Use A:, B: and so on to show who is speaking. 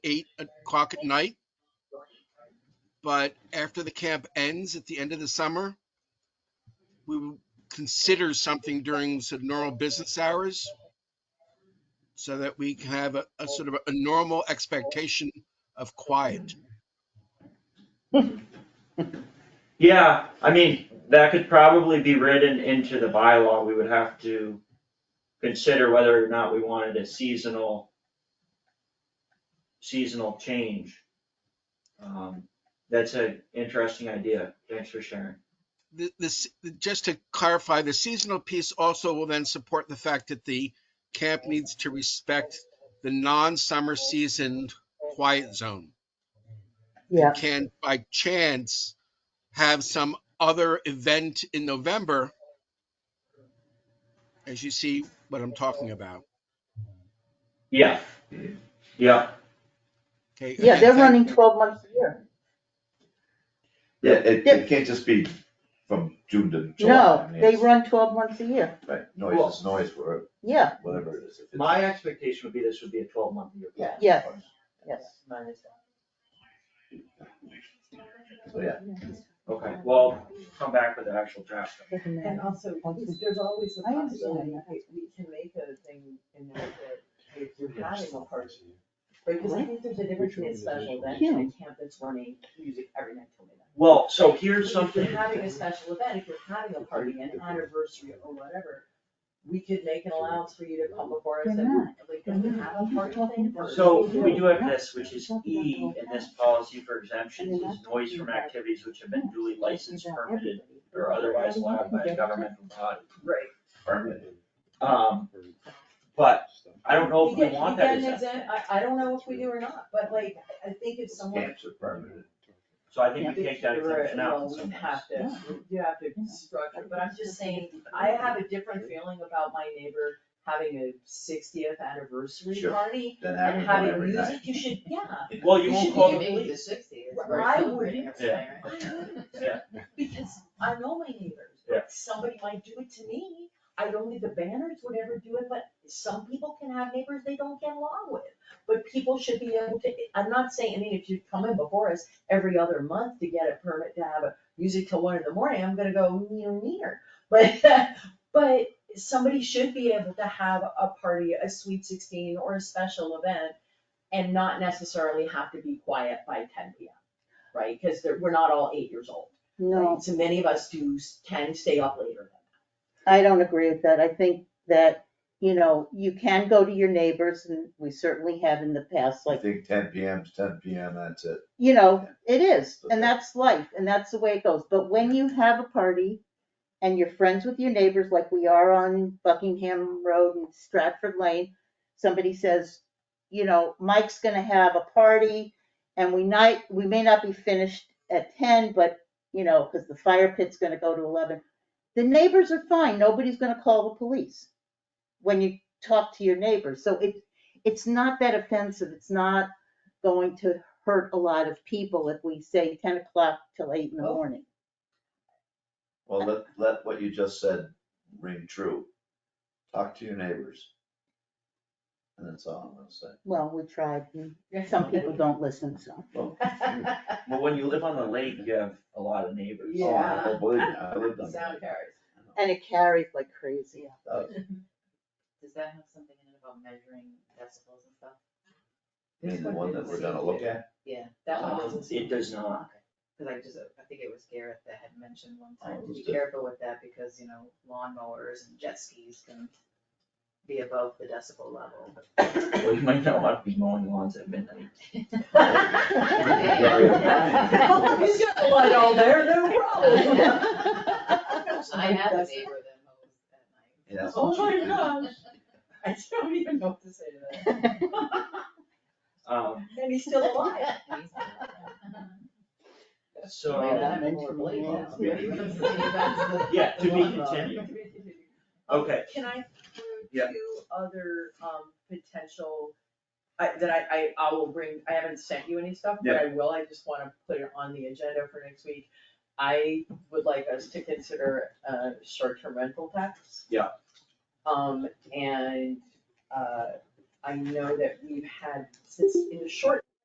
A: eight o'clock at night. But after the camp ends at the end of the summer, we will consider something during sort of normal business hours so that we can have a, a sort of a normal expectation of quiet.
B: Yeah, I mean, that could probably be written into the bylaw, we would have to consider whether or not we wanted a seasonal seasonal change. Um, that's an interesting idea, thanks for sharing.
A: The- This, just to clarify, the seasonal piece also will then support the fact that the camp needs to respect the non-summer season quiet zone.
C: Yeah,
A: can by chance have some other event in November, as you see what I'm talking about.
B: Yeah, yeah,
A: Okay.
C: yeah,
A: again,
C: they're
A: thank-
C: running twelve months a year.
D: Yeah, it,
C: Yeah.
D: it can't just be from June to July.
C: No,
D: I mean,
C: they
D: it's-
C: run twelve months a year,
D: Right, noise is noise, or
C: yeah,
D: whatever it is. If it's-
B: my expectation would be this would be a twelve month year.
D: Yeah.
C: yes, yes.
D: So, yeah,
B: Okay, well, come back with the actual draft.
C: Doesn't matter.
E: And also, there's always the
C: I understand
E: possibility
C: that.
E: that we can make a thing in there that if you're having a party. Right, because I think there's a difference between a special event and a camp that's running music every night till midnight.
B: Well, so here's
E: If you're
B: something,
E: having a special event, if you're having a party, an anniversary or whatever, we could make an allowance for you to come before us and, like, can we have a party thing? for-
B: so we do have this, which is E in this policy for exemptions, is noise from activities which have been duly licensed, permitted, or otherwise allowed by a governmental body.
E: Right.
D: permanent.
B: Um, but I don't know if we want that
E: You get- you get an
B: exemption,
E: exam- I, I don't know if we do or not, but like, I I think if someone
D: Camps are permanent.
B: so I think we take that
E: Right,
B: exemption out in
E: well,
B: some
E: you
B: ways.
E: have to, you have to structure, but I'm just saying, I have a different feeling about my neighbor having a sixtieth anniversary
D: Sure.
E: party
D: Then
E: and
D: having one
E: having
D: every
E: music,
D: night.
E: you should, yeah,
B: Well, you
E: you
B: won't
E: should
B: call
E: be
B: the
E: maybe
B: police,
E: the sixtieth, I wouldn't,
B: yeah, yeah,
E: because I know my neighbors,
B: Yeah.
E: but somebody might do it to me. I don't think the banners would ever do it, but some people can have neighbors they don't get along with. But people should be able to, I'm not saying, I mean, if you come in before us every other month to get a permit to have a music till one in the morning, I'm gonna go near, near. But, but somebody should be able to have a party, a sweet sixteen or a special event and not necessarily have to be quiet by ten P M. Right? Cause they're, we're not all eight years old.
C: No,
E: So many of us do s- can stay up later.
C: I don't agree with that. I think that, you know, you can go to your neighbors and we certainly have in the past,
D: I
C: like,
D: think ten PM is ten PM, that's it.
C: you know, it is, and that's life, and that's the way it goes. But when you have a party and you're friends with your neighbors, like we are on Buckingham Road and Stratford Lane, somebody says, you know, Mike's gonna have a party and we night, we may not be finished at ten, but, you know, cause the fire pit's gonna go to eleven. The neighbors are fine, nobody's gonna call the police when you talk to your neighbors. So it, it's not that offensive, it's not going to hurt a lot of people if we say ten o'clock till eight in the
E: Oh.
C: morning.
D: Well, let, let what you just said ring true. Talk to your neighbors. And that's all I'm gonna say.
C: Well, we tried, and some people don't listen, so.
D: oh,
B: well, when you live on the lake, you have a lot of neighbors.
D: Oh, I
E: Yeah.
D: don't believe it. I lived on
E: Sound
D: that.
E: carries.
C: And it carries like crazy.
F: Does that have something in it about measuring decibels and stuff?
D: And the one that we're gonna look at.
F: Yeah,
E: That one
B: Um,
E: doesn't seem.
B: It does not,
F: cause I just, I think it was Garrett that had mentioned one
D: Oh,
F: time, to be
D: it's good.
F: careful with that because, you know, lawnmowers and jet skis can be above the decibel level.
B: Um, well, you might not want to be mowing lawns at midnight.
E: He's got a light all there, no problem.
F: I have a neighbor that mows at night.
D: Yes.
E: Oh my gosh, I don't even know what to say to that,
B: Um,
E: and he's still alive.
B: so. uh,
F: Why not?
B: Yeah, to be continued. Okay.
E: Can I throw
B: Yeah.
E: two other, um, potential, I, that I, I, I will bring, I haven't sent you any stuff, but I will, I just wanna put it on the agenda for next week. I would like us to consider a short-term rental tax.
B: Yeah.
E: Um, and, uh, I know that we've had, since in the short